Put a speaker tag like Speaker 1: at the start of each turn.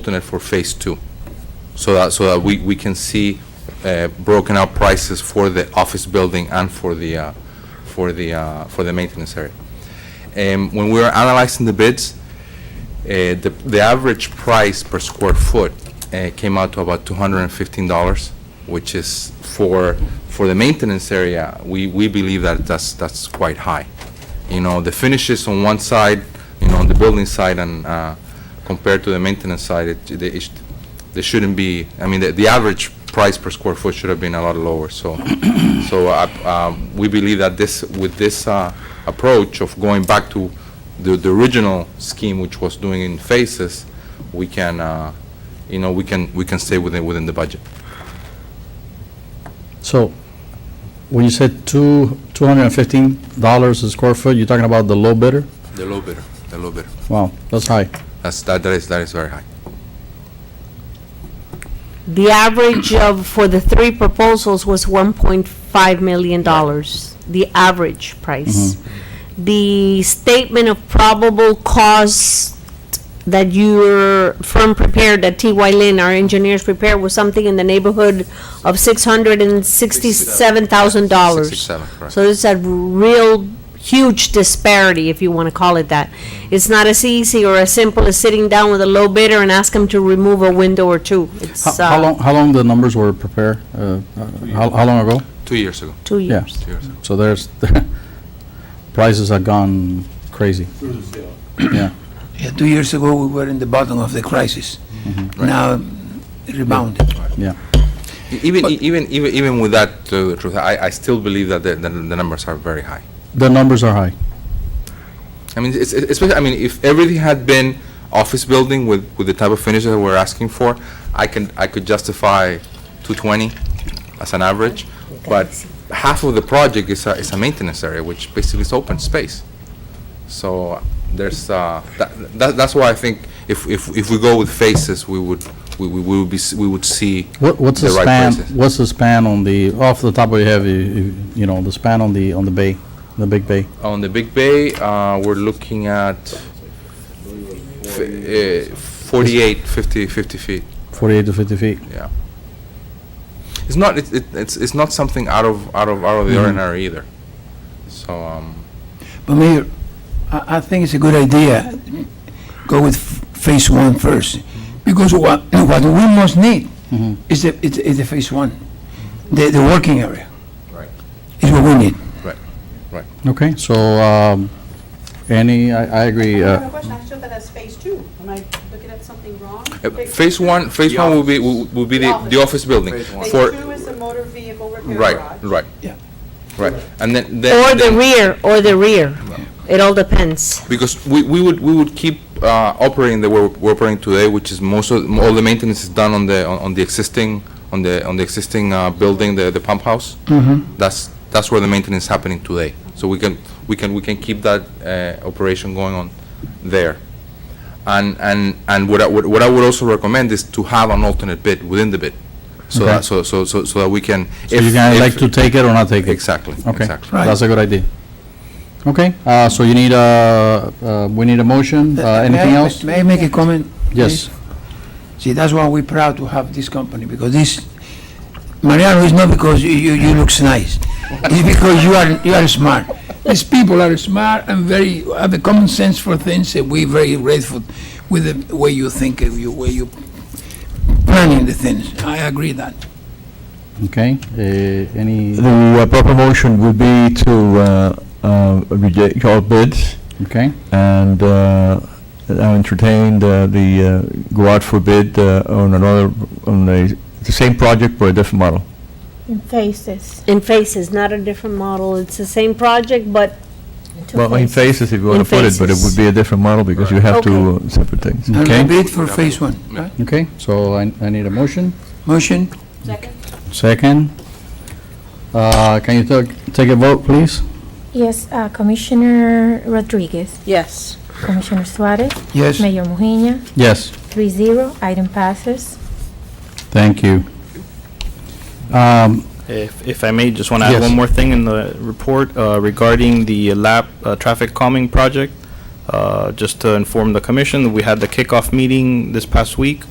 Speaker 1: alternate for phase two. So that, so that we, we can see uh, broken out prices for the office building and for the, uh, for the, uh, for the maintenance area. And when we were analyzing the bids, uh, the, the average price per square foot uh, came out to about $215, which is for, for the maintenance area, we, we believe that that's, that's quite high. You know, the finishes on one side, you know, on the building side and uh, compared to the maintenance side, it, they, it sh- they shouldn't be, I mean, the, the average price per square foot should have been a lot lower, so. So uh, um, we believe that this, with this uh, approach of going back to the, the original scheme, which was doing in phases, we can, uh, you know, we can, we can stay within, within the budget.
Speaker 2: So, when you said two, two hundred and fifteen dollars a square foot, you're talking about the low bidder?
Speaker 1: The low bidder, the low bidder.
Speaker 2: Wow, that's high.
Speaker 1: That's, that that is, that is very high.
Speaker 3: The average of, for the three proposals was $1.5 million, the average price. The statement of probable cost that your firm prepared, that TY Lin, our engineers prepared, was something in the neighborhood of $667,000.
Speaker 1: Sixty-seven, correct.
Speaker 3: So it's a real huge disparity, if you want to call it that. It's not as easy or as simple as sitting down with a low bidder and ask them to remove a window or two. It's
Speaker 2: How, how
Speaker 3: uh,
Speaker 2: long, how long the numbers were prepared? Uh, How, how long ago?
Speaker 1: Two years ago,
Speaker 3: two
Speaker 2: Yeah.
Speaker 3: years.
Speaker 1: two years ago.
Speaker 2: So there's, prices have gone crazy. Yeah,
Speaker 4: Yeah, two years ago, we were in the bottom of the crisis. Now, rebounded.
Speaker 2: yeah.
Speaker 1: E, Even, even, even, even with that, to the truth, I, I still believe that the, the the numbers are very high.
Speaker 2: The numbers are high.
Speaker 1: I mean, it's, it's, especially- I mean, if everything had been office building with, with the type of finish that we're asking for, I can, I could justify 220 as an average, but half of the project is a, is a maintenance area, which basically is open space. So there's, uh, that, that- that's why I think if, if, if we go with phases, we would, we we would be, s- we would see.
Speaker 2: What, what's the
Speaker 1: The right
Speaker 2: span,
Speaker 1: prices.
Speaker 2: what's the span on the, off the top of your head, you- you you know, the span on the, on the bay, the big bay?
Speaker 1: On the Big Bay, uh, we're looking at f- uh, 48, 50, 50 feet.
Speaker 2: Forty-eight to fifty feet?
Speaker 1: Yeah. It's not, it, it- it's, it's not something out of, out of, out of the ordinary either. So, um,
Speaker 4: But Mayor, I, I think it's a good idea, go with f- phase one first, because what, what we most need is the, is- is the phase one, the, the working area.
Speaker 1: Right.
Speaker 4: Is what we need.
Speaker 2: Okay, so, um, any, I, I agree,
Speaker 5: I
Speaker 2: uh,
Speaker 5: have a question, I showed that as phase two. Am I looking at something wrong?
Speaker 1: uh, phase one, phase one will be, will will be the, the office building.
Speaker 5: Phase
Speaker 1: For,
Speaker 5: two is the motor vehicle repair garage.
Speaker 1: right, right.
Speaker 4: Yeah.
Speaker 1: Right, and then,
Speaker 3: Or
Speaker 1: then,
Speaker 3: the
Speaker 1: then-
Speaker 3: rear, or the rear. It all depends.
Speaker 1: because we, we would, we would keep, uh, operating the way we're operating today, which is most of, all the maintenance is done on the, on on the existing, on the, on the existing, uh, building, the, the pump house. Mm-hmm. That's, that's where the maintenance is happening today. So we can, we can, we can keep that, uh, operation going on there. And, and, and what I, would- what I would also recommend is to have an alternate bid within the bid. So
Speaker 2: Okay.
Speaker 1: that, so, so, so so that we can.
Speaker 2: so you can elect to take it or not take it?
Speaker 1: Exactly,
Speaker 2: Okay,
Speaker 1: exactly.
Speaker 4: Right.
Speaker 2: that's a good idea. Okay, uh, so you need a, uh, we need a motion, uh,
Speaker 4: May I-
Speaker 2: anything else?
Speaker 4: May I make a comment?
Speaker 2: Yes,
Speaker 4: please? See, that's why we're proud to have this company, because this, Mariano, is not because you, you, you looks nice. It's because you are, you are smart. These people are smart and very, have a common sense for things, and we're very grateful with the way you think, of you, way you planning the things. I agree that.
Speaker 2: okay, uh, any,
Speaker 6: The uh, proper motion would be to uh, uh, reject all bids
Speaker 2: okay,
Speaker 6: and uh, now entertain the- the, uh, go out for bid uh, on another, on the the same project but a different model.
Speaker 7: faces.
Speaker 3: In phases, not a different model. It's the same project, but
Speaker 6: Well, in phases, if you want
Speaker 3: In
Speaker 6: to put it, but it
Speaker 3: phases.
Speaker 6: would be a different model because you have two uh, separate things.
Speaker 4: And
Speaker 2: Okay.
Speaker 4: we bid for phase one, right?
Speaker 2: okay, so I, I need a motion.
Speaker 4: Motion?
Speaker 2: Second, uh, can you take, take a vote, please?
Speaker 7: Yes, uh, Commissioner Rodriguez,
Speaker 3: yes.
Speaker 7: Commissioner Suarez,
Speaker 4: Yes.
Speaker 7: Mayor Mujina,
Speaker 2: Yes,
Speaker 7: three zero, item passes.
Speaker 2: thank you. Um,
Speaker 8: If, if I may, just want to add
Speaker 2: Yes.
Speaker 8: one more thing in the report uh, regarding the lap uh, traffic calming project. Uh, Just to inform the commission, we had the kickoff meeting this past week.